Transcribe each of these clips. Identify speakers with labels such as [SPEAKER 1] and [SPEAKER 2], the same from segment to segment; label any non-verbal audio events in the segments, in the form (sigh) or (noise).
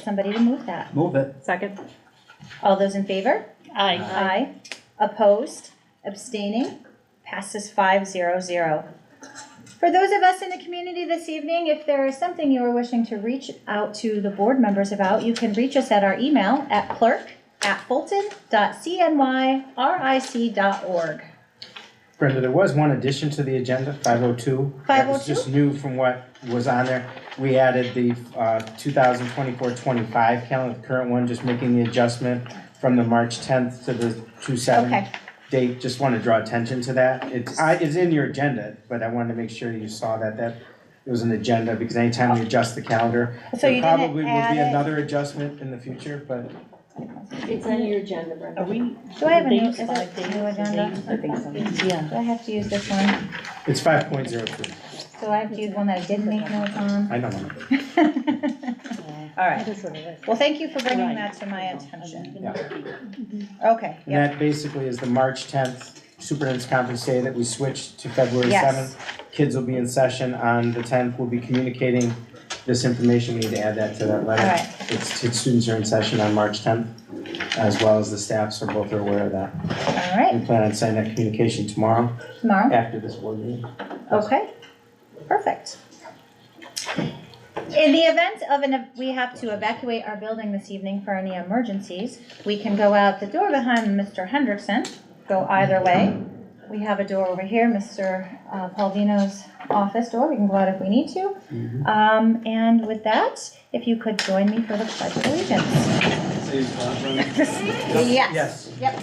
[SPEAKER 1] somebody to move that.
[SPEAKER 2] Move it.
[SPEAKER 3] Second.
[SPEAKER 1] All those in favor?
[SPEAKER 3] Aye.
[SPEAKER 1] Aye. Opposed, abstaining, passes five zero zero. For those of us in the community this evening, if there is something you are wishing to reach out to the board members about, you can reach us at our email at clerk@fulton.cnyric.org.
[SPEAKER 4] Brenda, there was one addition to the agenda, five oh two. That was
[SPEAKER 1] 502?
[SPEAKER 4] just new from what was on there. We added the, uh, 2024-25 calendar, the current one, just making the adjustment from the March tenth to the two
[SPEAKER 1] Okay,
[SPEAKER 4] seven date. Just wanna draw attention to that. It's, I, it's in your agenda, but I wanted to make sure you saw that, that it was an agenda, because anytime you adjust the calendar,
[SPEAKER 1] so you
[SPEAKER 4] there
[SPEAKER 1] didn't
[SPEAKER 4] probably will be
[SPEAKER 1] add it.
[SPEAKER 4] another adjustment in the future, but
[SPEAKER 5] It's on your agenda, Brenda.
[SPEAKER 3] Are we?
[SPEAKER 1] Do I have a new,
[SPEAKER 3] Dates,
[SPEAKER 1] is it
[SPEAKER 3] five dates,
[SPEAKER 1] new agenda?
[SPEAKER 3] dates, I think so.
[SPEAKER 1] Do I have to use this one?
[SPEAKER 4] it's five point zero three.
[SPEAKER 1] So I have to use one that I did make notes on? (laughs)
[SPEAKER 4] I know. I'm-
[SPEAKER 1] All right.
[SPEAKER 3] It is what it
[SPEAKER 1] Well, thank you for bringing
[SPEAKER 3] Right.
[SPEAKER 1] that to my attention.
[SPEAKER 3] is.
[SPEAKER 4] Yeah.
[SPEAKER 1] Okay,
[SPEAKER 4] And
[SPEAKER 1] yeah,
[SPEAKER 4] that basically is the March tenth superintendent's conference day that we switched to February
[SPEAKER 1] Yes.
[SPEAKER 4] seventh. Kids will be in session on the tenth, we'll be communicating this information, we need to add that to that letter.
[SPEAKER 1] Alright.
[SPEAKER 4] It's, it's students are in session on March tenth, as well as the staff, so both are aware of that.
[SPEAKER 1] all right,
[SPEAKER 4] We plan on sending that communication tomorrow
[SPEAKER 1] tomorrow,
[SPEAKER 4] after this board meeting.
[SPEAKER 1] okay, perfect. In the event of an, we have to evacuate our building this evening for any emergencies, we can go out the door behind Mr. Hendrickson, go either way. We have a door over here, Mr. uh, Paulino's office door, we can go out if we need to. Um, and with that, if you could join me for the pledge of allegiance. Yes, yep.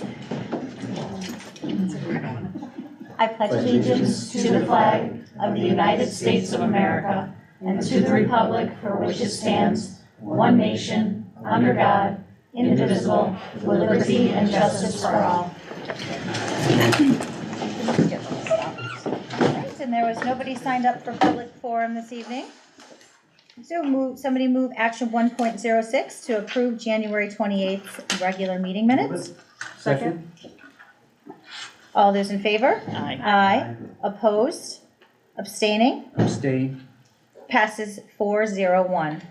[SPEAKER 1] I pledge
[SPEAKER 5] Allegiance to the flag of the United States of America and to the republic for which it stands, one nation, under God, indivisible, with liberty and justice for all.
[SPEAKER 1] Alright, And there was nobody signed up for public forum this evening. So move, somebody move action one point zero six to approve January twenty-eighth regular meeting minutes.
[SPEAKER 4] Second?
[SPEAKER 1] All those in favor?
[SPEAKER 3] Aye.
[SPEAKER 1] Aye. Opposed? Abstaining?
[SPEAKER 2] Abstain.
[SPEAKER 1] Passes four zero one.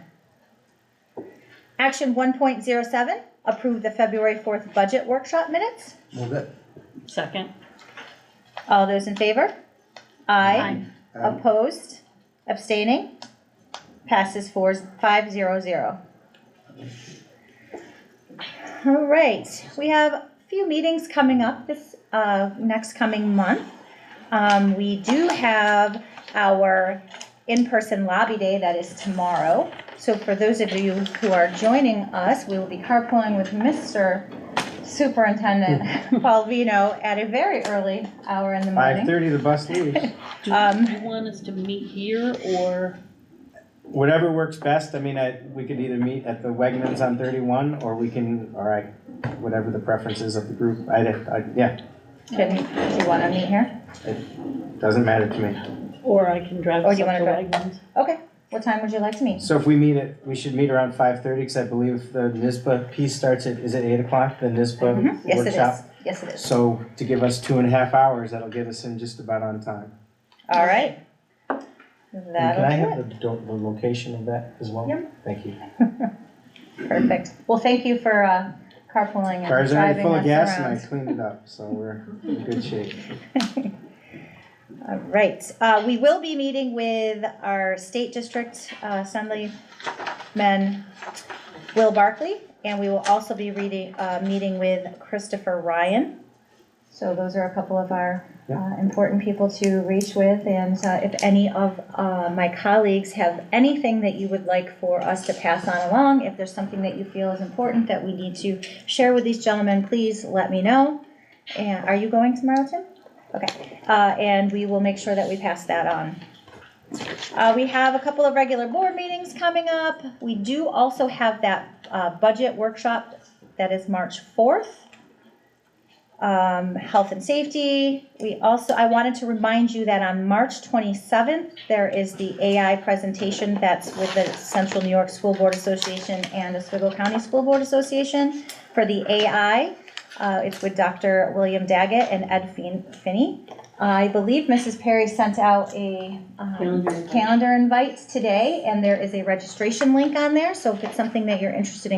[SPEAKER 1] Action one point zero seven, approve the February fourth budget workshop minutes.
[SPEAKER 2] Move it.
[SPEAKER 3] Second.
[SPEAKER 1] All those in favor? Aye.
[SPEAKER 2] Aye.
[SPEAKER 1] Opposed? Abstaining? Passes four, five zero zero. All right, we have a few meetings coming up this, uh, next coming month. Um, we do have our in-person lobby day that is tomorrow. So for those of you who are joining us, we will be carpooling with Mr. Superintendent Paul Vino at a very early hour in the
[SPEAKER 4] Five
[SPEAKER 1] morning.
[SPEAKER 4] thirty, the bus
[SPEAKER 1] (laughs)
[SPEAKER 4] leaves.
[SPEAKER 3] Do
[SPEAKER 1] Um,
[SPEAKER 3] you want us to meet here or?
[SPEAKER 4] Whatever works best, I mean, I, we could either meet at the Wegmans on thirty-one, or we can, or I, whatever the preferences of the group, I, I, yeah,
[SPEAKER 1] Can, do you wanna meet here?
[SPEAKER 4] doesn't matter to me.
[SPEAKER 3] Or I can drive
[SPEAKER 1] Or
[SPEAKER 3] us
[SPEAKER 1] do you
[SPEAKER 3] up to
[SPEAKER 1] wanna
[SPEAKER 3] Wegmans.
[SPEAKER 1] Okay, what time would you like to meet?
[SPEAKER 4] So if we meet at, we should meet around five-thirty, because I believe the NISBA piece starts at, is it eight o'clock, the
[SPEAKER 1] Mhm.
[SPEAKER 4] NISBA
[SPEAKER 1] Yes, it is,
[SPEAKER 4] workshop?
[SPEAKER 1] yes, it is.
[SPEAKER 4] So to give us two and a half hours, that'll get us in just about on time.
[SPEAKER 1] All right.
[SPEAKER 4] And Can I
[SPEAKER 1] That'll do
[SPEAKER 4] have the, do- the location of that as well?
[SPEAKER 1] Yep.
[SPEAKER 4] Thank you.
[SPEAKER 1] it, perfect. Well, thank you for uh, carpooling and
[SPEAKER 4] Car's already
[SPEAKER 1] driving
[SPEAKER 4] full of gas
[SPEAKER 1] us
[SPEAKER 4] and I
[SPEAKER 1] around.
[SPEAKER 4] cleaned it up, so we're in good shape.
[SPEAKER 1] All right, uh, we will be meeting with our state district uh, assemblyman, Will Barkley, and we will also be reading, uh, meeting with Christopher Ryan. So those are a couple of our
[SPEAKER 4] Yeah.
[SPEAKER 1] uh, important people to reach with, and uh, if any of uh, my colleagues have anything that you would like for us to pass on along, if there's something that you feel is important that we need to share with these gentlemen, please let me know. And are you going tomorrow, Tim? Okay, uh, and we will make sure that we pass that on. Uh, we have a couple of regular board meetings coming up. We do also have that, uh, budget workshop that is March fourth. Um, health and safety. We also, I wanted to remind you that on March twenty-seventh, there is the AI presentation that's with the Central New York School Board Association and Oswego County School Board Association for the AI. Uh, it's with Dr. William Daggett and Ed Fin- Finney. I believe Mrs. Perry sent out a um,
[SPEAKER 3] Calendar invite.
[SPEAKER 1] calendar invite today, and there is a registration link on there, so if it's something that you're interested in